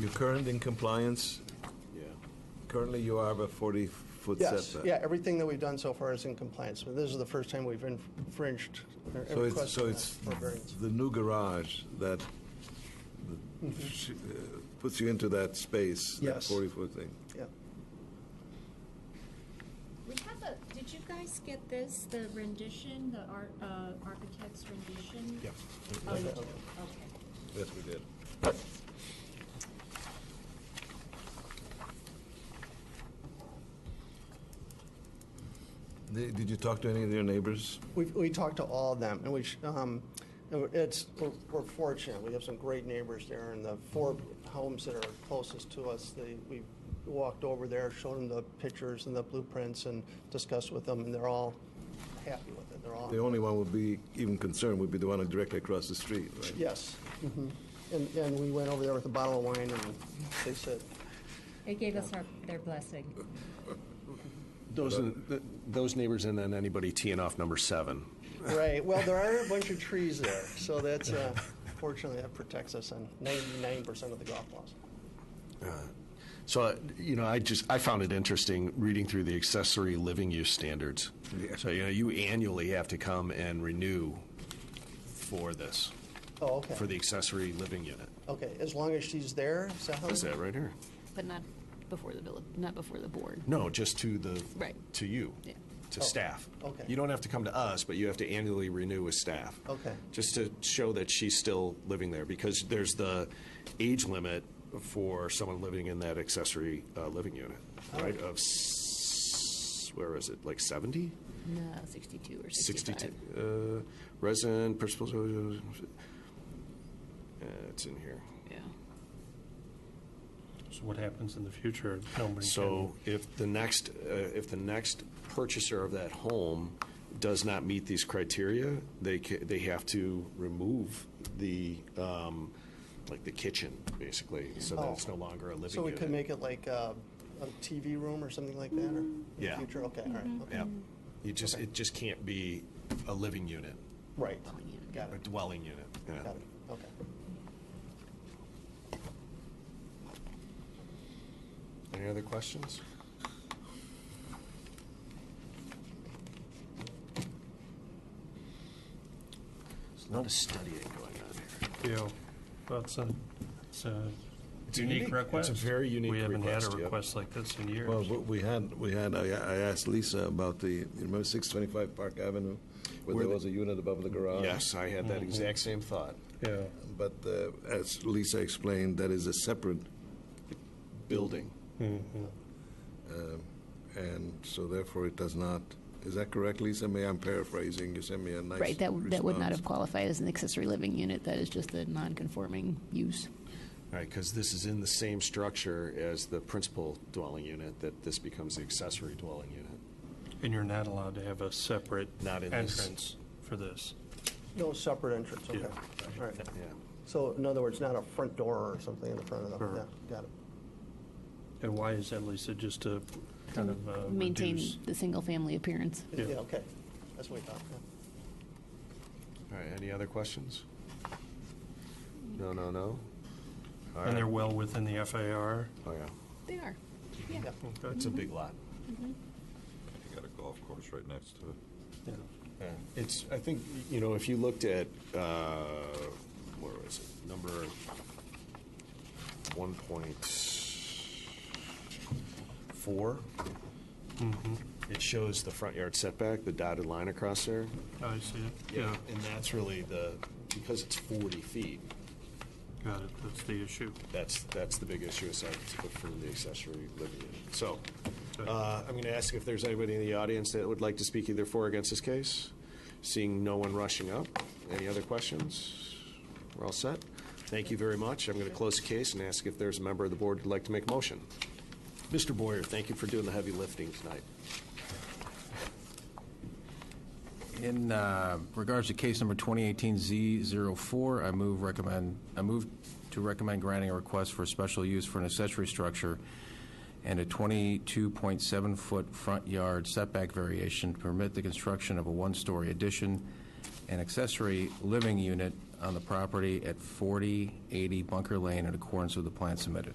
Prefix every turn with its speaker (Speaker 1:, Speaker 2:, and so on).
Speaker 1: You're current in compliance? Yeah. Currently, you are a 40-foot
Speaker 2: Yes,
Speaker 1: setback.
Speaker 2: yeah, everything that we've done so far is in compliance. But This is the first time we've infringed or
Speaker 1: So it's,
Speaker 2: requested
Speaker 1: so
Speaker 2: that
Speaker 1: it's
Speaker 2: for variance.
Speaker 1: the new garage that that sh- uh, puts you into that space, that
Speaker 2: Mm-hmm. Yes.
Speaker 1: 40-foot thing.
Speaker 2: Yeah.
Speaker 3: We have a, did you guys get this, the rendition, the art, uh, architect's rendition?
Speaker 1: Yeah.
Speaker 3: Oh, you
Speaker 2: Yeah.
Speaker 3: do, okay.
Speaker 1: Yes, we did. They- Did you talk to any of your neighbors?
Speaker 2: We, we talked to all of them, and we, sh- um, and it's, we're- we're fortunate, we have some great neighbors there, and the four homes that are closest to us, they, we walked over there, showed them the pictures and the blueprints, and discussed with them, and they're all happy with it, they're all.
Speaker 1: The only one would be even concerned would be the one directly across the street, right?
Speaker 2: Yes, mhm. and, and we went over there with a bottle of wine, and they said,
Speaker 3: They gave us our, their blessing.
Speaker 4: Those, th- those neighbors and then anybody teeing off number seven.
Speaker 2: right, well, there are a bunch of trees there, so that's, uh, fortunately, that protects us on ninety-nine percent of the golf balls.
Speaker 4: So, uh, you know, I just, I found it interesting reading through the accessory living use standards. So, you know, you annually have to come and renew for this,
Speaker 2: Oh, okay.
Speaker 4: for the accessory living unit.
Speaker 2: Okay, as long as she's there, is
Speaker 5: Oh.
Speaker 2: that how?
Speaker 4: Is that right here?
Speaker 5: But not before the, vill- not before the board.
Speaker 4: No, just to the,
Speaker 5: Right.
Speaker 4: to you,
Speaker 5: Yeah. Oh.
Speaker 4: to staff.
Speaker 2: okay.
Speaker 4: You don't have to come to us, but you have to annually renew with staff.
Speaker 2: Okay.
Speaker 4: Just to show that she's still living there, because there's the age limit for someone living in that accessory uh, living unit, right? Of, s- where is it, like 70?
Speaker 5: No, 62 or 65.
Speaker 4: 62, uh, resident, principal, uh, it's in here.
Speaker 5: Yeah.
Speaker 6: So what happens in the future? Nobody
Speaker 4: So if the next, uh, if the next purchaser of that home does not meet these criteria, they, ca- they have to remove the, um, like the kitchen, basically, so that it's no longer a living
Speaker 2: Oh. So we
Speaker 4: unit.
Speaker 2: could make it like uh, a TV room or something like that, or in the
Speaker 4: Yeah.
Speaker 2: future, okay, all right. okay.
Speaker 4: Yeah. You just, it just can't be a living unit,
Speaker 2: Right,
Speaker 5: unit.
Speaker 2: got
Speaker 4: a
Speaker 2: it,
Speaker 4: dwelling unit. Yeah.
Speaker 2: got it, okay.
Speaker 4: Any other questions? There's a lot of studying going on here.
Speaker 6: can- Yeah, well, it's a, it's a
Speaker 4: It's unique. It's
Speaker 6: unique
Speaker 4: a
Speaker 6: request.
Speaker 4: very unique
Speaker 6: We haven't
Speaker 4: request,
Speaker 6: had a
Speaker 4: yeah.
Speaker 6: request like this in years.
Speaker 1: Well, we had, we had, I I asked Lisa about the, you remember 625 Park Avenue? Where
Speaker 4: Where
Speaker 1: there
Speaker 4: the-
Speaker 1: was a unit above the garage?
Speaker 4: Yes, I had that exact same thought.
Speaker 6: Yeah,
Speaker 1: But uh, as Lisa explained, that is a separate
Speaker 4: Building.
Speaker 6: Mm-hmm.
Speaker 1: And so therefore, it does not, is that correct, Lisa? May I'm paraphrasing, you sent me a nice
Speaker 5: Right, that, that would not
Speaker 1: response.
Speaker 5: have qualified as an accessory living unit. That is just a non-conforming use.
Speaker 4: Right, because this is in the same structure as the principal dwelling unit, that this becomes the accessory dwelling unit.
Speaker 6: and you're not allowed to have a separate
Speaker 4: Not in this.
Speaker 6: entrance for this.
Speaker 2: No separate entrance, okay,
Speaker 6: Yeah.
Speaker 2: all right.
Speaker 4: Yeah.
Speaker 2: So in other words, not a front door or something in the front of them,
Speaker 6: Sure.
Speaker 2: yeah, got it.
Speaker 6: And why is that, Lisa, just to kind of uh,
Speaker 5: Maintain
Speaker 6: reduce?
Speaker 5: the single-family appearance.
Speaker 6: Yeah.
Speaker 2: Yeah, okay, that's what we thought, yeah.
Speaker 4: All right, any other questions? No, no, no? All
Speaker 6: And
Speaker 4: right.
Speaker 6: they're well within the FAR.
Speaker 4: Oh, yeah.
Speaker 5: They are.
Speaker 4: It's a big lot.
Speaker 7: You got a golf course right next to it.
Speaker 4: Yeah. It's, I think, you know, if you looked at, uh, where was it, number one point four?
Speaker 6: Mm-hmm.
Speaker 4: It shows the front yard setback, the dotted line across there.
Speaker 6: I see it. Yeah,
Speaker 4: And that's really the, because it's forty feet,
Speaker 6: got it. That's the issue.
Speaker 4: that's, that's the big issue aside from the accessory living unit. So,
Speaker 6: Okay.
Speaker 4: uh, I'm gonna ask if there's anybody in the audience that would like to speak either for or against this case. Seeing no one rushing up. Any other questions? We're all set. Thank you very much. I'm gonna close the case and ask if there's a member of the board who'd like to make a motion. Mr. Boyer, thank you for doing the heavy lifting tonight.
Speaker 8: In uh, regards to case number 2018-Z04, I move recommend, I move to recommend granting a request for special use for an accessory structure and a 22.7-foot front yard setback variation to permit the construction of a one-story addition and accessory living unit on the property at 4080 Bunker Lane in accordance with the plan submitted.